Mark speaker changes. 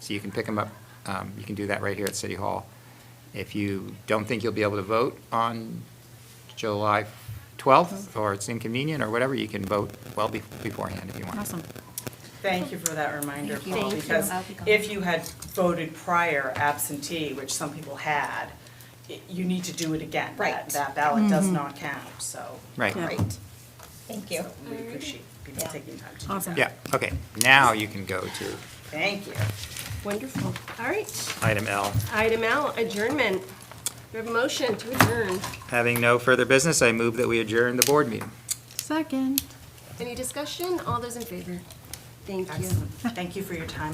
Speaker 1: So you can pick them up, um, you can do that right here at City Hall. If you don't think you'll be able to vote on July 12th, or it's inconvenient, or whatever, you can vote well be- beforehand if you want.
Speaker 2: Awesome.
Speaker 3: Thank you for that reminder,
Speaker 2: Thank you.
Speaker 3: Paul,
Speaker 2: Thank you.
Speaker 3: because
Speaker 2: I'll be gone.
Speaker 3: if you had voted prior absentee, which some people had, i- you need to do it again. That-
Speaker 4: Right.
Speaker 3: That ballot does not count, so.
Speaker 1: Mm-hmm. Right.
Speaker 2: Yeah.
Speaker 4: Great. Thank you.
Speaker 3: So We appreciate people
Speaker 4: Yeah.
Speaker 3: taking time to do
Speaker 2: Awesome.
Speaker 3: that.
Speaker 1: Yeah, okay, now you can go to
Speaker 3: Thank you.
Speaker 5: Wonderful. All right.
Speaker 1: item L.
Speaker 5: Item L, adjournment. We have a motion to adjourn.
Speaker 1: Having no further business, I move that we adjourn the board meeting.
Speaker 2: Second.
Speaker 5: Any discussion? All those in favor? Thank you.
Speaker 3: Excellent. Thank you for your time.